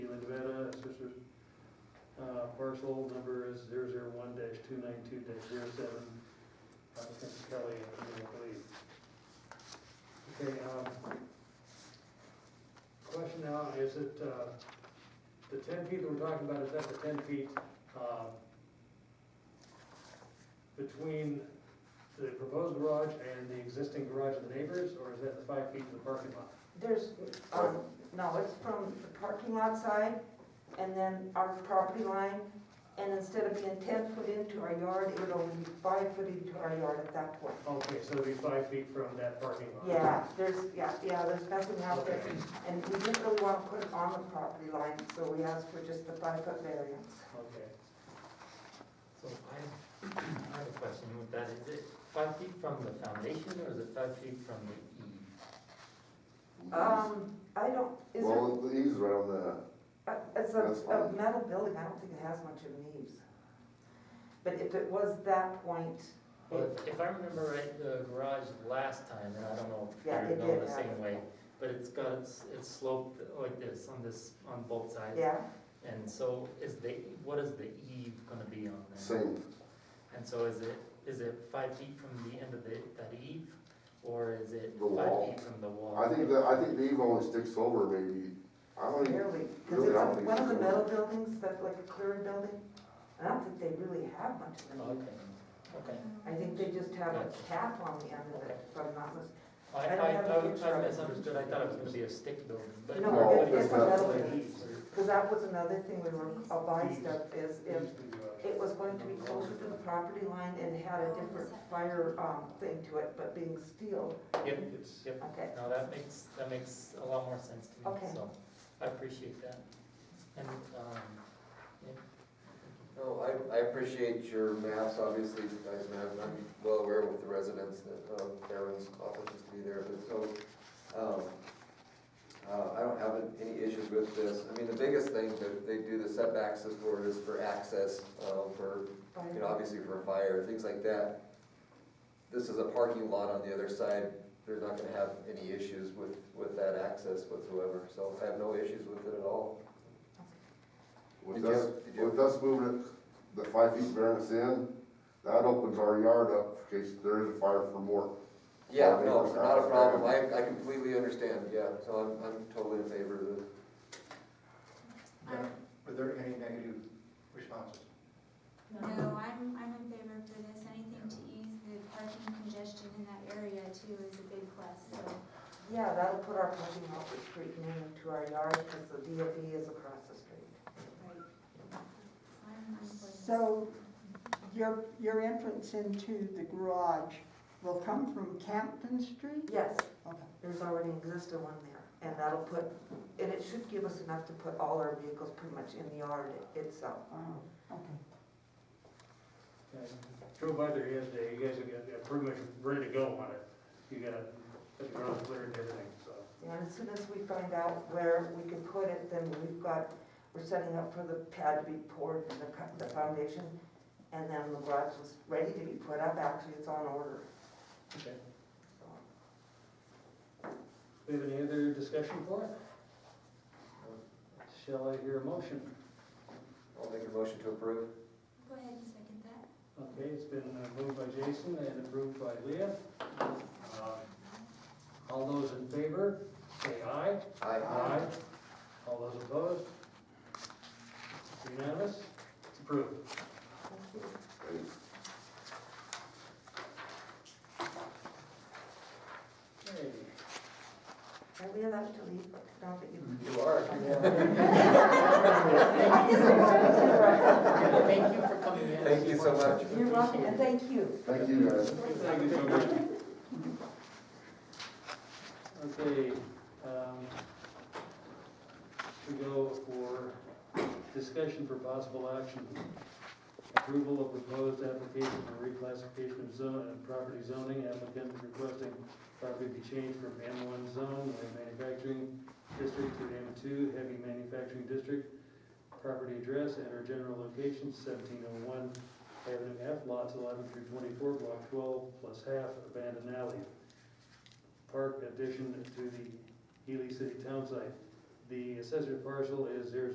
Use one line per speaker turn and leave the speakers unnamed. uh, parcel number is zero zero one dash two nine two dash zero seven, applicant Kelly and Community Lead. Okay, um, question now, is it, uh, the ten feet that we're talking about, is that the ten feet, um, between the proposed garage and the existing garage of the neighbors, or is that the five feet from the parking lot?
There's, um, no, it's from the parking lot side and then our property line. And instead of being ten foot into our yard, it would only be five foot into our yard at that point.
Okay, so it'd be five feet from that parking lot?
Yeah, there's, yeah, yeah, there's nothing out there.
Okay.
And we didn't really want to put it on the property line, so we asked for just the five foot variance.
Okay.
So I, I have a question with that, is it five feet from the foundation or is it five feet from the E? eave?
Um, I don't, is
Well, the eaves right on the,
there, uh, it's
that's
a, a
fine.
metal building, I don't think it has much of an eaves. But if it was that point,
Well, if- if I remember right, the garage last time, and I don't know if
Yeah,
you're
it
going
did
the
have-
same way, but it's got, it's it's sloped like this on this, on both sides.
yeah,
And so is the, what is the eave gonna be on there?
same,
And so is it, is it five feet from the end of the, that eave? Or is it
The
five
wall.
feet from the wall?
I think that, I think the eave only sticks over maybe, I don't even,
Really, because
Really,
it's
I don't
on
think
one of the
so.
metal buildings, that like a clearing building, I don't think they really have much of an
Okay, okay.
I think they just have a
Gotcha.
cap on the end of it, if I'm not mistaken.
I, I,
I don't have a picture
I
of
I
it.
misunderstood, I thought it was gonna be a stick building, but.
No,
No, it- it's it's not.
metal building. Because that was another thing we were advised of, is if it was going to be closer to the property line and had a different fire, um, thing to it, but being steel,
Yep,
It's-
yep,
okay.
no, that makes, that makes a lot more sense to me,
Okay.
so, I appreciate that. And, um, yeah,
No, I, I appreciate your maps, obviously, you guys know, I'm I'm well aware with the residents that, um, Darren's office used to be there, but so, um, uh, I don't have any issues with this. I mean, the biggest thing that they do the setbacks is for, is for access, um, for, you
fire.
know, obviously for fire, things like that. This is a parking lot on the other side, they're not gonna have any issues with, with that access whatsoever, so I have no issues with it at all.
with
Did you-
us,
did you-
with us moving it, the five feet variance in, that opens our yard up in case there is a fire for more.
Yeah,
Or
no,
neighbors
not a
are-
problem, I, I completely understand, yeah, so I'm, I'm totally in favor of it.
Were there any negative responses?
No, I'm, I'm in favor for this, anything to ease the parking congestion in that area too is a big plus, so.
Yeah, that'll put our parking off the street and into our yard, because the DFE is across the street.
right. I'm- I'm for this.
So your, your entrance into the garage will come from Campton Street?
Yes,
Okay.
There's already existed one there, and that'll put, and it should give us enough to put all our vehicles pretty much in the yard itself.
Oh, okay.
Yeah, Drove by there yesterday, you guys have got, got pretty much ready to go on it. You got, got the ground cleared and everything, so.
And as soon as we find out where we can put it, then we've got, we're setting up for the pad to be poured and the, co- the foundation, and then the garage is ready to be put up, actually, it's on order.
Okay.
So,
We have any other discussion for it? Shall I hear a motion?
I'll make a motion to approve.
Go ahead and second that.
Okay, it's been uh, moved by Jason and approved by Leah. Uh, All those in favor, say aye.
Aye.
All those opposed? Unanimous? It's approved.
thank you.
And
Okay.
Are we allowed to leave now that you?
You are.
I just wanted
thank you for coming in.
Thank you so much.
to- You're welcome, and thank you.
Thank you guys.
Thank you so much. Okay, um, we go for discussion for possible action. Approval of proposed application for reclassification of zone, uh, property zoning, applicant requesting property be changed from M one zone, light manufacturing district to M two, heavy manufacturing district. Property address and or general location seventeen oh one Avenue F, lots eleven through twenty-four, block twelve, plus half abandoned alley. Park addition to the Healy City Town Site. The assessor parcel is zero